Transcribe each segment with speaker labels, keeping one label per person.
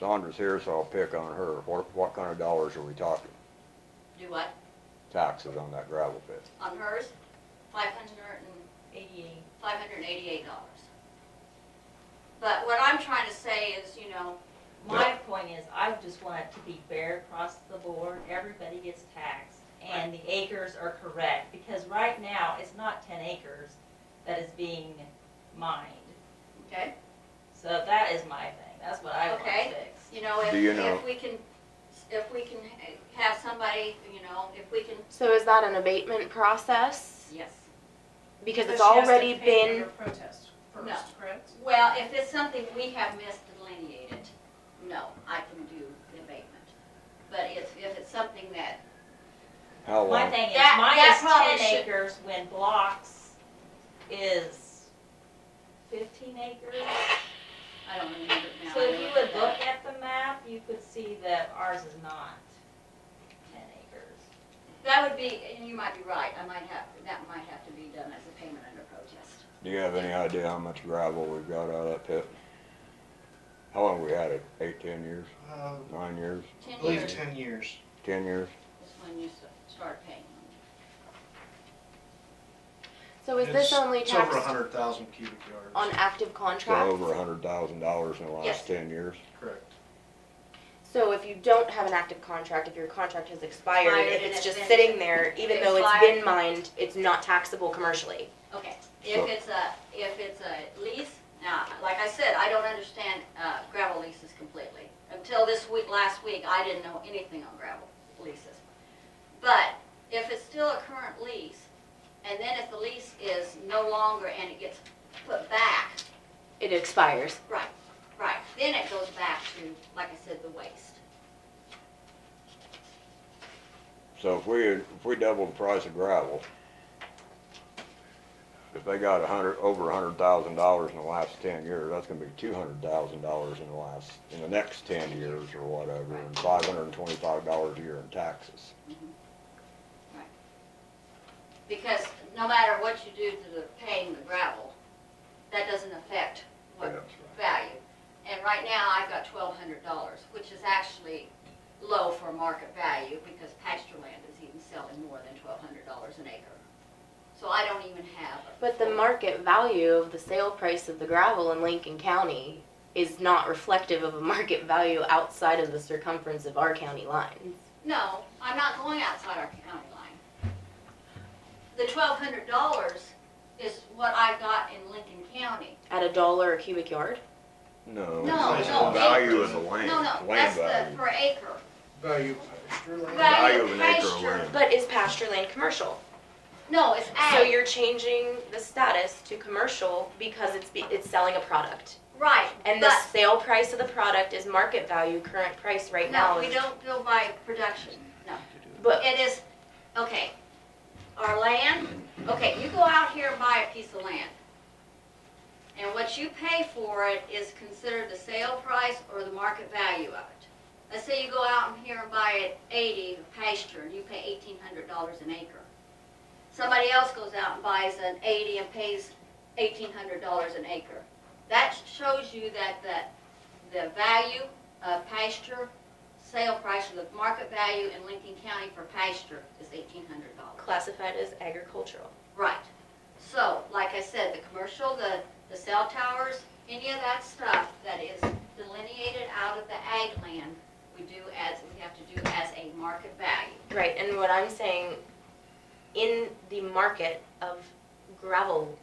Speaker 1: Sandra's here, so I'll pick on her. What, what kind of dollars are we talking?
Speaker 2: Do what?
Speaker 1: Taxes on that gravel pit?
Speaker 2: On hers, five hundred and
Speaker 3: eighty-eight.
Speaker 2: five hundred and eighty-eight dollars. But what I'm trying to say is, you know,
Speaker 3: My point is, I just want it to be fair across the board, everybody gets taxed, and the acres are correct, because right now, it's not ten acres that is being mined.
Speaker 2: okay,
Speaker 3: So that is my thing, that's what I want
Speaker 2: Okay.
Speaker 3: fixed.
Speaker 2: you know, if,
Speaker 1: Do you know-
Speaker 2: if we can, if we can have somebody, you know, if we can,
Speaker 4: So is that an abatement process?
Speaker 2: yes.
Speaker 4: Because
Speaker 5: But
Speaker 4: it's
Speaker 5: she has to
Speaker 4: already
Speaker 5: pay
Speaker 4: been,
Speaker 5: her Protest
Speaker 2: No.
Speaker 5: first, correct?
Speaker 2: Well, if it's something we have misdelineated, no, I can do the abatement. But if, if it's something that,
Speaker 1: How
Speaker 3: My
Speaker 1: long?
Speaker 3: thing is,
Speaker 2: That-
Speaker 3: mine
Speaker 2: that
Speaker 3: is
Speaker 2: probably
Speaker 3: ten
Speaker 2: should-
Speaker 3: acres when blocks is fifteen acres.
Speaker 2: I don't remember it now.
Speaker 3: So if you
Speaker 2: I
Speaker 3: would
Speaker 2: at
Speaker 3: look
Speaker 2: that.
Speaker 3: at the map, you could see that ours is not ten acres.
Speaker 2: That would be, and you might be right, I might have, that might have to be done as a payment under protest.
Speaker 1: Do you have any idea how much gravel we've got out of that pit? How long we had it? Eight, ten years?
Speaker 6: Uh,
Speaker 1: Nine years?
Speaker 6: I
Speaker 2: Ten
Speaker 6: believe
Speaker 2: years is
Speaker 6: ten years.
Speaker 1: Ten years?
Speaker 2: when you s- start paying them.
Speaker 4: so is this
Speaker 6: It's-
Speaker 4: only
Speaker 6: It's over a
Speaker 4: taxed
Speaker 6: hundred thousand cubic yards.
Speaker 4: on active
Speaker 1: So over a
Speaker 4: contracts?
Speaker 1: hundred thousand dollars in the
Speaker 2: Yes.
Speaker 1: last ten years?
Speaker 6: Correct.
Speaker 4: So if you don't have an active contract, if your contract has expired,
Speaker 2: Expired
Speaker 4: if
Speaker 2: and
Speaker 4: it's
Speaker 2: it's
Speaker 4: just
Speaker 2: been-
Speaker 4: sitting there, even though it's
Speaker 2: Expired.
Speaker 4: been mined, it's not taxable commercially.
Speaker 2: Okay,
Speaker 1: So-
Speaker 2: if it's a, if it's a lease, now, like I said, I don't understand uh, gravel leases completely. Until this week, last week, I didn't know anything on gravel leases. But if it's still a current lease, and then if the lease is no longer and it gets put back,
Speaker 4: It expires.
Speaker 2: right, right, then it goes back to, like I said, the waste.
Speaker 1: So if we, if we double the price of gravel, if they got a hundred, over a hundred thousand dollars in the last ten years, that's gonna be two hundred thousand dollars in the last, in the next ten years or whatever, and five hundred and twenty-five dollars a year in taxes.
Speaker 2: Because no matter what you do to the paying the gravel, that doesn't affect what value. And right now, I've got twelve hundred dollars, which is actually low for market value because pasture land is even selling more than twelve hundred dollars an acre. So I don't even have. a-
Speaker 4: But the market value of the sale price of the gravel in Lincoln County is not reflective of a market value outside of the circumference of our county lines.
Speaker 2: No, I'm not going outside our county line. The twelve hundred dollars is what I got in Lincoln County.
Speaker 4: At a dollar a cubic yard?
Speaker 1: No.
Speaker 2: No,
Speaker 1: it's
Speaker 6: no,
Speaker 1: the Value
Speaker 2: acres.
Speaker 1: of the land,
Speaker 2: No, no,
Speaker 1: land
Speaker 2: that's the,
Speaker 1: value.
Speaker 2: per acre.
Speaker 6: Value of pasture land.
Speaker 2: Value
Speaker 1: Value
Speaker 2: of
Speaker 1: of an acre of
Speaker 2: pasture.
Speaker 1: land.
Speaker 4: But is pasture land commercial?
Speaker 2: No, it's ag.
Speaker 4: So you're changing the status to commercial because it's, be- it's selling a product.
Speaker 2: Right,
Speaker 4: And the
Speaker 2: but,
Speaker 4: sale price of the product is market value, current price right now.
Speaker 2: no, we
Speaker 4: is-
Speaker 2: don't bill by production, no.
Speaker 4: But,
Speaker 2: It is, okay, our land, okay, you go out here and buy a piece of land. And what you pay for it is considered the sale price or the market value of it. Let's say you go out and here and buy it eighty pasture, and you pay eighteen hundred dollars an acre. Somebody else goes out and buys an eighty and pays eighteen hundred dollars an acre. That shows you that, that the value of pasture sale price or the market value in Lincoln County for pasture is eighteen hundred dollars.
Speaker 4: classified as agricultural.
Speaker 2: Right. So, like I said, the commercial, the, the cell towers, any of that stuff that is delineated out of the ag land, we do as, we have to do as a market value.
Speaker 4: Right, and what I'm saying, in the market of gravel,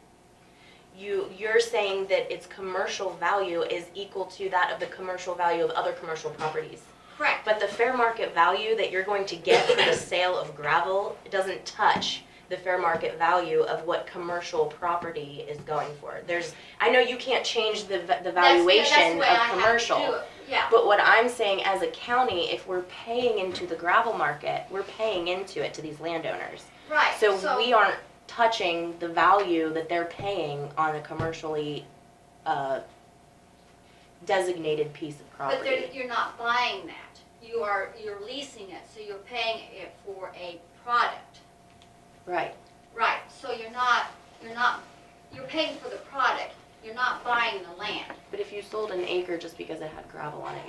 Speaker 4: you, you're saying that its commercial value is equal to that of the commercial value of other commercial properties.
Speaker 2: Correct.
Speaker 4: But the fair market value that you're going to get for the sale of gravel doesn't touch the fair market value of what commercial property is going for. There's, I know you can't change the, va- the
Speaker 2: That's-
Speaker 4: valuation
Speaker 2: that's the way I
Speaker 4: of
Speaker 2: have to do
Speaker 4: commercial.
Speaker 2: it. Yeah,
Speaker 4: But what I'm saying as a county, if we're paying into the gravel market, we're paying into it to these landowners.
Speaker 2: right.
Speaker 4: So we aren't touching the value that they're paying on a commercially, uh, designated piece of
Speaker 2: But
Speaker 4: property.
Speaker 2: they're, you're not buying that. You are, you're leasing it, so you're paying it for a product.
Speaker 4: Right.
Speaker 2: Right, so you're not, you're not, you're paying for the product, you're not buying the land.
Speaker 4: But if you sold an acre just because it had gravel on it,